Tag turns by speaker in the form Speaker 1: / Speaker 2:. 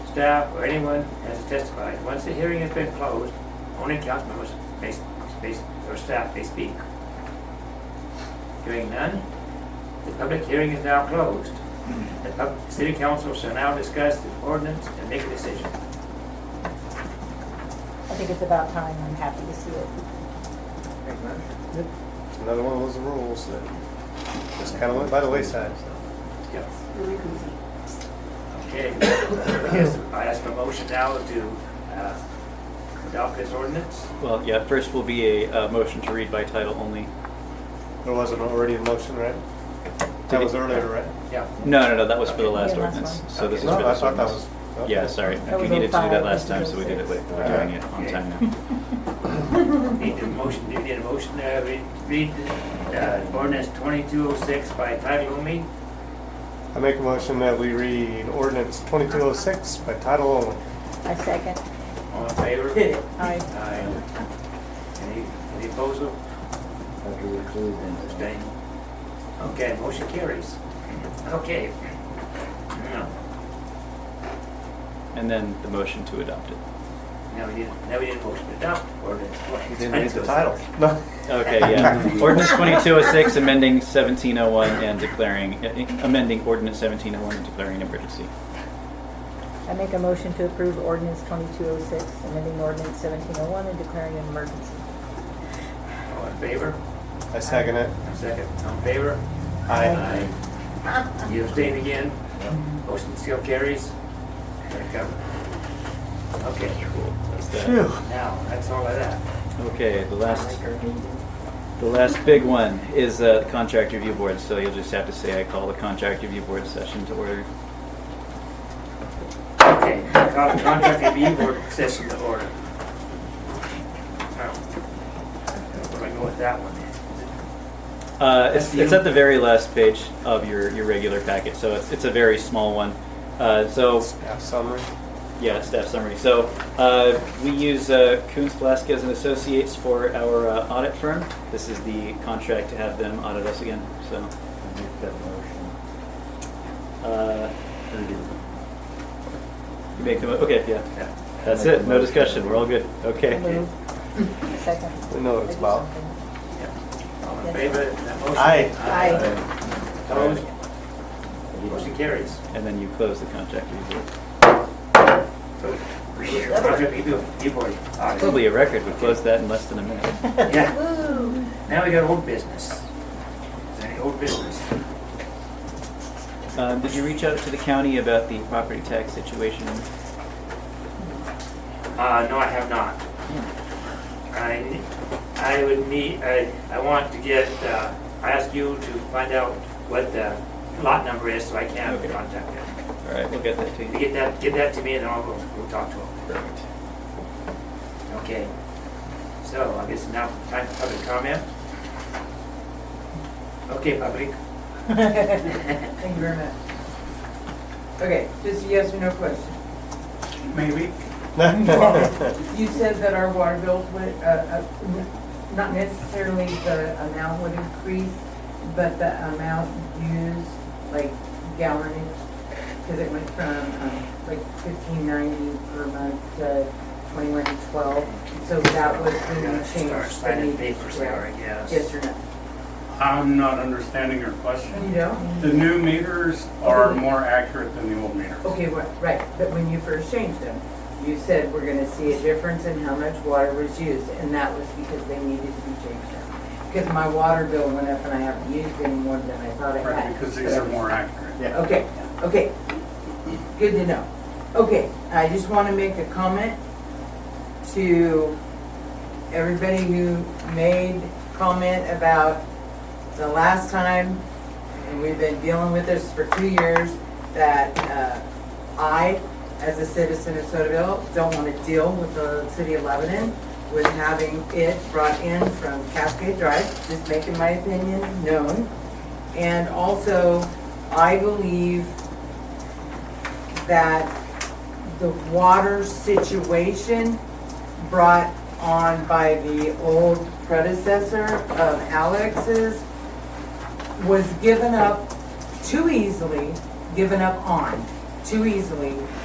Speaker 1: staff, or anyone has testified. Once the hearing has been closed, only council members may, may- or staff may speak. Hearing none, the public hearing is now closed. The pub- city council shall now discuss the ordinance and make a decision.
Speaker 2: I think it's about time, I'm happy to see it.
Speaker 3: Another one of those rules that just kind of went by the wayside, so.
Speaker 1: Yep. Okay, I guess I ask for a motion now to uh, adopt this ordinance.
Speaker 4: Well, yeah, first will be a, uh motion to read by title only.
Speaker 3: There wasn't already a motion, right? That was earlier, right?
Speaker 1: Yeah.
Speaker 4: No, no, no, that was for the
Speaker 2: Okay,
Speaker 4: last
Speaker 2: yeah, last
Speaker 4: ordinance,
Speaker 2: one.
Speaker 4: so this is
Speaker 3: No,
Speaker 4: for
Speaker 3: I
Speaker 4: this
Speaker 3: thought that
Speaker 4: ordinance.
Speaker 3: was. okay.
Speaker 4: Yeah, sorry,
Speaker 2: That
Speaker 4: we
Speaker 2: was
Speaker 4: needed to do
Speaker 2: 05,
Speaker 4: that last time, so we did it,
Speaker 2: this is
Speaker 4: late. we're doing it on
Speaker 1: Okay.
Speaker 4: time now.
Speaker 1: Need a motion, do you need a motion, uh, read, read, uh, ordinance twenty-two oh six by title only?
Speaker 3: I make a motion that we read ordinance 2206 by title only.
Speaker 2: I second.
Speaker 1: All in favor?
Speaker 2: Aye.
Speaker 1: Aye. Any, any opposed,
Speaker 5: After we include them.
Speaker 1: abstain? Okay, motion carries. Okay. Now,
Speaker 4: And then the motion to adopt it.
Speaker 1: now we need, now we need a motion to adopt ordinance oh twenty.
Speaker 3: You didn't read the title. No.
Speaker 4: Okay, yeah. Ordinance twenty-two oh six, amending seventeen oh one and declaring, uh, amending ordinance seventeen oh one and declaring an emergency.
Speaker 2: I make a motion to approve ordinance 2206, amending ordinance 1701 and declaring an emergency.
Speaker 1: All in favor?
Speaker 3: I second it.
Speaker 1: Second, all in favor?
Speaker 3: Aye.
Speaker 1: Aye. You abstain again? Motion still carries? There it comes. Okay,
Speaker 4: Cool, that's that.
Speaker 3: Phew.
Speaker 1: now, that's all of that.
Speaker 4: Okay, the last, the last big one is uh, the contract review board, so you'll just have to say I call the contract review board session to order.
Speaker 1: Okay, call the contract review board session to order. Now, Where do I go with that one?
Speaker 4: Uh, it's,
Speaker 1: That's
Speaker 4: it's
Speaker 1: you.
Speaker 4: at the very last page of your, your regular packet, so it's, it's a very small one. Uh, so,
Speaker 3: Staff summary.
Speaker 4: yeah, staff summary. So, uh, we use uh, Coons Velasquez and Associates for our uh, audit firm. This is the contract to have them audit us again. So,
Speaker 5: Make that motion.
Speaker 4: uh,
Speaker 5: Or do we-
Speaker 4: you make the mo- okay, yeah.
Speaker 1: Yeah.
Speaker 4: That's it. No discussion. We're all good. Okay.
Speaker 2: Move. Second.
Speaker 3: We know what it's about.
Speaker 1: yeah. All in favor of that motion?
Speaker 3: Aye.
Speaker 2: Aye.
Speaker 1: Opposed?
Speaker 5: I didn't-
Speaker 1: Motion carries.
Speaker 4: And then you close the contract review board.
Speaker 1: Contract review review board audit.
Speaker 4: Probably a record. We closed that in less than a minute.
Speaker 1: Yeah. Now we got old business. Is there any old business?
Speaker 4: Um, did you reach out to the county about the property tax situation?
Speaker 1: Uh, no, I have not. I, I would need, I, I want to get, uh, I ask you to find out what the lot number is so I can
Speaker 4: Okay.
Speaker 1: contact them.
Speaker 4: All right, we'll get that to
Speaker 1: You
Speaker 4: you.
Speaker 1: get that, get that to me and then I'll go, go talk to them. Okay. So I guess now time for public comment. Okay, public.
Speaker 6: Thank you very much. Okay, just a yes or no question.
Speaker 1: Maybe.
Speaker 6: You said that our water bills would, uh, uh, n- not necessarily the amount would increase, but the amount used, like gallonage, because it went from um, like fifteen ninety per month to twenty-one twelve. So that was when you
Speaker 1: Yeah,
Speaker 6: changed.
Speaker 1: start
Speaker 6: the
Speaker 1: signing
Speaker 6: meter,
Speaker 1: papers there, I
Speaker 6: correct?
Speaker 1: guess.
Speaker 6: Yes or no?
Speaker 7: I'm not understanding your question.
Speaker 6: You don't?
Speaker 7: The new meters are more accurate than the old meters.
Speaker 6: Okay, wha- right, but when you first changed them, you said we're gonna see a difference in how much water was used, and that was because they needed to be changed out. Because my water bill went up and I haven't used any more than I thought I
Speaker 7: Right,
Speaker 6: had.
Speaker 7: because these are more accurate.
Speaker 3: Yeah.
Speaker 6: Okay, okay, good to know. Okay, I just wanna make a comment to everybody who made comment about the last time, and we've been dealing with this for two years, that uh, I, as a citizen of Sotaville, don't want to deal with the city of Lebanon with having it brought in from Cascade Drive, just making my opinion known. And also, I believe that the water situation brought on by the old predecessor of Alex's was given up too easily, given up on too easily